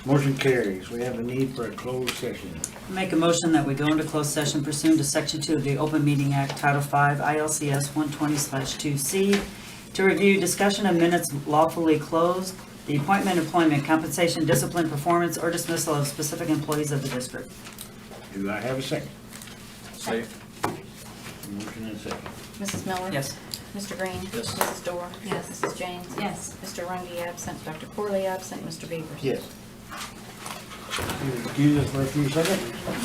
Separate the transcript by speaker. Speaker 1: Motion carries. We have a need for a closed session.
Speaker 2: Make a motion that we go into closed session pursuant to Section 2 of the Open Meeting Act, Title 5, ILCS 120/2C, to review discussion of minutes lawfully closed, the appointment, employment, compensation, discipline, performance, or dismissal of specific employees of the district.
Speaker 1: Do I have a second?
Speaker 3: Say,
Speaker 1: Motion and second.
Speaker 4: Mrs. Miller?
Speaker 2: Yes.
Speaker 4: Mr. Green?
Speaker 3: Yes.
Speaker 4: Mrs. Dorr?
Speaker 5: Yes.
Speaker 4: Mrs. James?
Speaker 5: Yes.
Speaker 4: Mr. Rungy absent, Dr. Corley absent, Mr. Beavers?
Speaker 1: Yes. You excuse us for a few seconds?